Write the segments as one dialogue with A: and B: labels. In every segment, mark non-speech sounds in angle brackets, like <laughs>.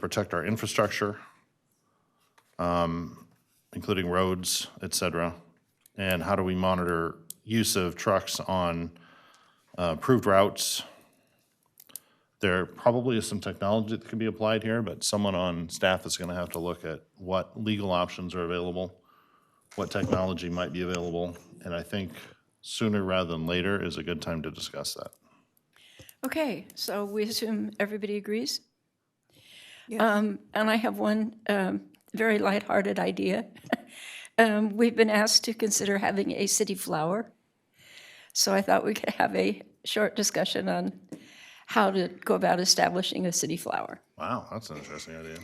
A: protect our infrastructure, um, including roads, et cetera? And how do we monitor use of trucks on uh, approved routes? There probably is some technology that can be applied here, but someone on staff is going to have to look at what legal options are available, what technology might be available, and I think sooner rather than later is a good time to discuss that.
B: Okay, so we assume everybody agrees? Um, And I have one um, very lighthearted idea. <laughs> Um, We've been asked to consider having a city flower, so I thought we could have a short discussion on how to go about establishing a city flower.
A: Wow, that's an interesting idea.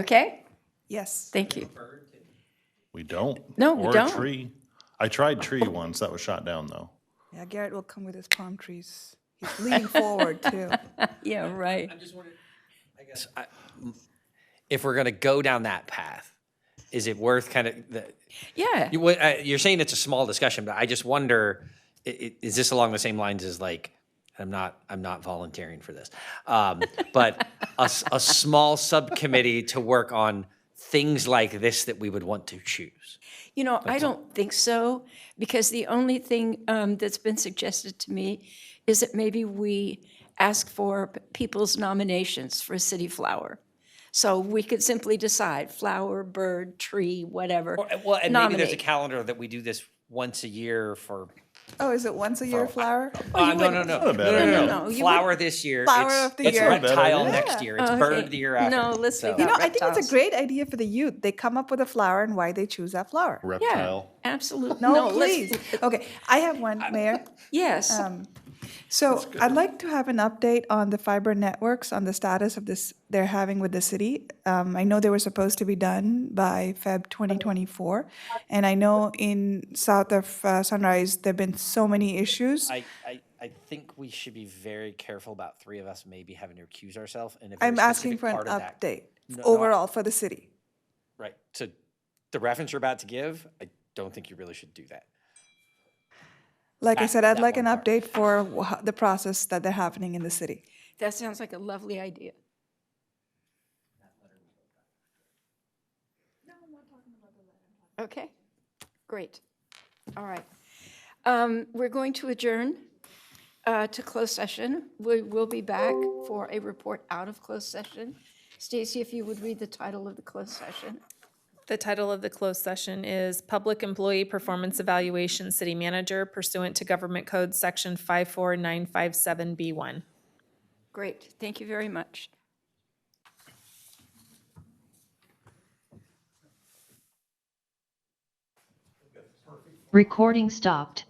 B: Okay?
C: Yes.
B: Thank you.
A: We don't.
B: No, we
A: or
B: don't.
A: a tree. I tried tree once. That was shot down though.
C: Yeah, Garrett will come with his palm trees.
B: <laughs>
C: He's leaning forward too.
B: Yeah, right.
D: if we're going to go down that path, is it worth kind of the,
B: Yeah,
D: you, what, uh, you're saying it's a small discussion, but I just wonder, i- i- is this along the same lines as like, I'm not, I'm not volunteering for this, um, but a, s- a small subcommittee to work on things like this that we would want to choose.
B: you know, I don't think so, because the only thing um, that's been suggested to me is that maybe we ask for p- people's nominations for a city flower. So we could simply decide flower, bird, tree, whatever.
D: Or, uh, well, and maybe there's a
B: Nominate.
D: calendar that we do this once a year for.
C: Oh, is it once a year flower? Oh,
D: Uh, no, no, no, no, no,
A: bad
D: no,
B: idea.
D: no,
B: No, no, you
D: Flower this year.
C: Flower
D: it's,
C: of the
D: it's
C: year. Not a
A: bad
D: reptile
A: idea.
D: next year. It's
B: Okay.
D: bird the year after.
B: No, let's leave
D: so-
B: that
C: You know, I think it's
B: reptiles.
C: a great idea for the youth. They come up with a flower and why they choose that flower.
B: Yeah,
A: Reptile.
B: absolutely.
C: No,
B: let's-
C: please. Okay, I have one,
B: <laughs>
C: Mayor.
B: Yes,
C: Um, So I'd like to have an update on the fiber networks, on the status of this, they're having with the city. Um, I know they were supposed to be done by Feb 2024. And I know in south of uh, Sunrise, there've been so many issues.
D: I, I, I think we should be very careful about three of us maybe having to recuse ourselves. And if
C: I'm
D: there's a
C: asking
D: specific
C: for an
D: part of that-
C: update
D: No, no, I-
C: overall for the city.
D: Right. So the reference you're about to give, I don't think you really should do that.
C: Like I
D: That-
C: said, I'd
D: that
C: like an
D: one part.
C: update for wha- the process that they're happening in the city.
B: that sounds like a lovely idea. Okay, great. All right. Um, We're going to adjourn uh, to closed session. We will be back for a report out of closed session. Stacy, if you would read the title of the closed session.
E: The title of the closed session is Public Employee Performance Evaluation City Manager pursuant to Government Code Section 54957B1.
B: Great, thank you very much.
F: Recording stopped.